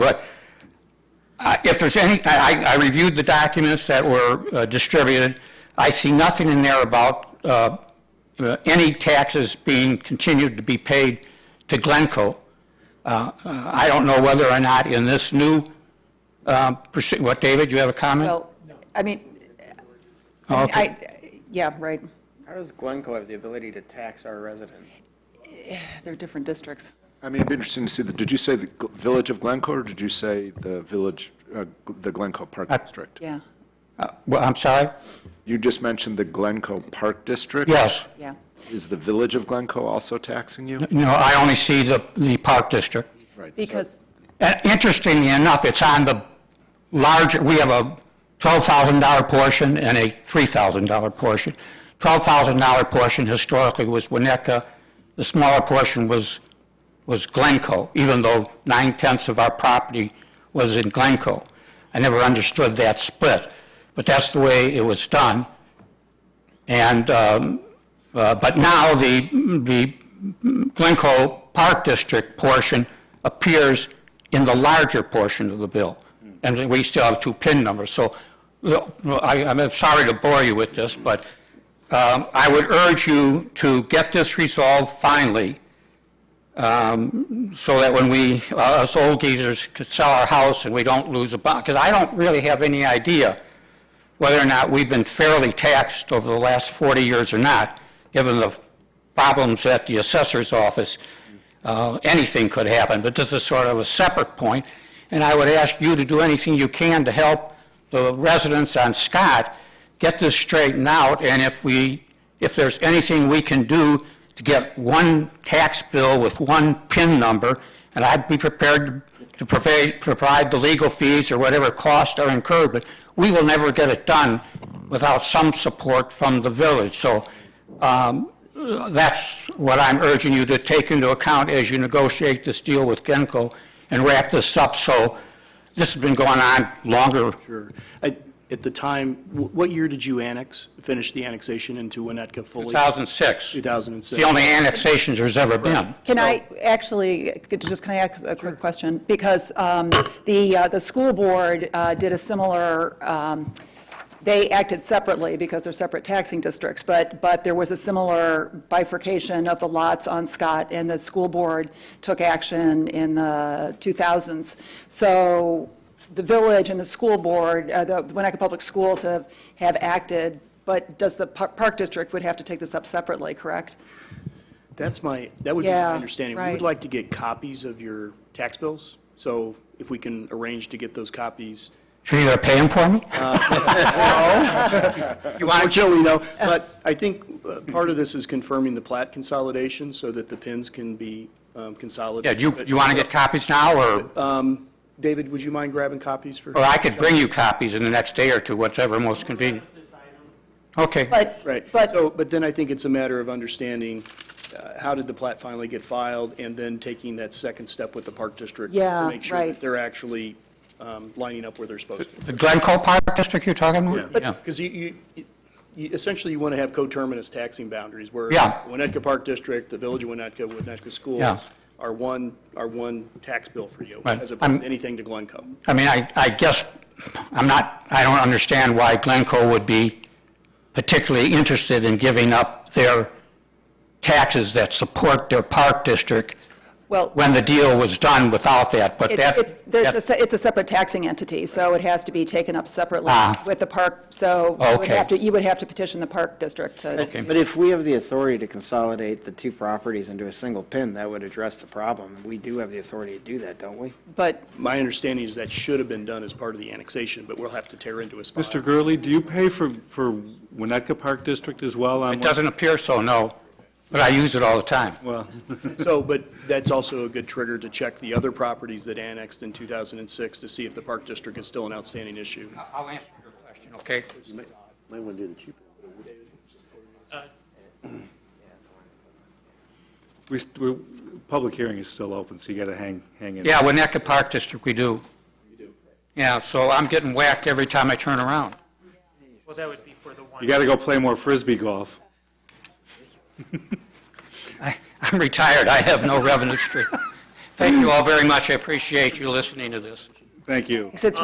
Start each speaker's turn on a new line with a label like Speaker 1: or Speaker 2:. Speaker 1: But I- if there's any, I, I I reviewed the documents that were uh, distributed. I see nothing in there about uh, uh, any taxes being continued to be paid to Glencoe. Uh, uh, I don't know whether or not in this new, um, proce- what, David, you have a comment?
Speaker 2: Well, I mean,
Speaker 1: Oh, okay.
Speaker 2: I, yeah, right,
Speaker 3: How does Glencoe have the ability to tax our resident?
Speaker 2: they're different districts.
Speaker 4: I mean, it'd be interesting to see, the- did you say the Gl- Village of Glencoe, or did you say the Village, uh, the Glencoe Park
Speaker 1: I-
Speaker 4: District?
Speaker 2: Yeah,
Speaker 1: Uh, Well, I'm sorry?
Speaker 4: You just mentioned the Glencoe Park District?
Speaker 1: Yes.
Speaker 2: yeah.
Speaker 4: Is the Village of Glencoe also taxing you?
Speaker 1: No, I only see the, the Park District.
Speaker 4: Right, so-
Speaker 2: Because,
Speaker 1: Uh, Interestingly enough, it's on the larger, we have a $12,000 portion and a $3,000 portion. $12,000 portion historically was Winnetka, the smaller portion was, was Glencoe, even though nine-tenths of our property was in Glencoe. I never understood that split, but that's the way it was done. And, um, uh, but now the, the Glencoe Park District portion appears in the larger portion of the bill. And we still have two PIN numbers, so well, I, I'm sorry to bore you with this, but um, I would urge you to get this resolved finally, um, so that when we, uh, us old geezers could sell our house and we don't lose a bond, because I don't really have any idea whether or not we've been fairly taxed over the last 40 years or not, given the problems at the assessor's office. Uh, Anything could happen, but this is sort of a separate point, and I would ask you to do anything you can to help the residents on Scott get this straightened out, and if we, if there's anything we can do to get one tax bill with one PIN number, and I'd be prepared to provide, provide the legal fees or whatever costs are incurred, but we will never get it done without some support from the village. So um, that's what I'm urging you to take into account as you negotiate this deal with Genco and wrap this up, so this has been going on longer.
Speaker 5: Sure. I- uh, At the time, wh- what year did you annex, finish the annexation into Winnetka fully?
Speaker 1: 2006. It's
Speaker 5: 2006.
Speaker 1: the only annexations there's ever been.
Speaker 2: can I, actually, could- just can I ask a quick question? Because um, the, uh, the school board uh, did a similar, um, they acted separately because they're separate taxing districts, but, but there was a similar bifurcation of the lots on Scott, and the school board took action in the 2000s. So the village and the school board, uh, the Winnetka Public Schools have, have acted, but does the par- park district would have to take this up separately, correct?
Speaker 5: That's my, that would be my
Speaker 2: Yeah,
Speaker 5: understanding. We
Speaker 2: right.
Speaker 5: would like to get copies of your tax bills, so if we can arrange to get those copies.
Speaker 1: Should you pay them for me?
Speaker 2: Uh,
Speaker 1: You want to,
Speaker 5: Unfortunately, no, but I think uh, part of this is confirming the plat consolidation so that the pins can be um,
Speaker 1: yeah,
Speaker 5: consolidated.
Speaker 1: you,
Speaker 5: But,
Speaker 1: you want to get copies now, or,
Speaker 2: Uh,
Speaker 5: um, David, would you mind grabbing copies for?
Speaker 1: or I could bring you copies in the next day or two, whatever most convenient. Okay.
Speaker 2: But,
Speaker 5: Right.
Speaker 2: but
Speaker 5: So, but then I think it's a matter of understanding, uh, how did the plat finally get filed, and then taking that second step with the Park District.
Speaker 2: Yeah,
Speaker 5: To make sure
Speaker 2: right.
Speaker 5: that they're actually um, lining up where they're supposed to.
Speaker 1: The Glencoe Park District you're talking about? Yeah.
Speaker 5: Because you, you- you, you- essentially, you want to have coterminous taxing boundaries, where
Speaker 1: Yeah.
Speaker 5: Winnetka Park District, the Village of Winnetka, Winnetka
Speaker 1: Yeah.
Speaker 5: Schools are one, are one tax bill for you,
Speaker 1: Right.
Speaker 5: as
Speaker 1: I'm-
Speaker 5: opposed to anything to Glencoe.
Speaker 1: I mean, I, I guess, I'm not, I don't understand why Glencoe would be particularly interested in giving up their taxes that support their park district
Speaker 2: Well,
Speaker 1: when the deal was done without that, but
Speaker 2: it's,
Speaker 1: that.
Speaker 2: it's, there's a
Speaker 1: that-
Speaker 2: se- it's a separate taxing entity, so it has to be taken up separately
Speaker 1: Ah.
Speaker 2: with the park, so you would
Speaker 1: Okay.
Speaker 2: have to, you would have to petition the park district to,
Speaker 3: But if we have the authority to consolidate the two properties into a single pin, that would address the problem. We do have the authority to do that, don't we?
Speaker 2: but,
Speaker 5: My understanding is that should have been done as part of the annexation, but we'll have to tear into a spot.
Speaker 6: Mr. Gurley, do you pay for, for Winnetka Park District as well on?
Speaker 1: It doesn't appear so, no, but I use it all the time.
Speaker 6: Well,
Speaker 5: So, but that's also a good trigger to check the other properties that annexed in 2006 to see if the Park District is still an outstanding issue.
Speaker 1: I'll answer your question, okay?
Speaker 7: uh,
Speaker 6: we, we, public hearing is still open, so you got to hang, hang in.
Speaker 1: Yeah, Winnetka Park District, we do. You do. Yeah, so I'm getting whacked every time I turn around.
Speaker 7: Well, that would be for the one.
Speaker 6: You got to go play more frisbee golf.
Speaker 1: I'm retired, I have no revenue stream. Thank you all very much. I appreciate you listening to this.
Speaker 6: Thank you.
Speaker 2: It's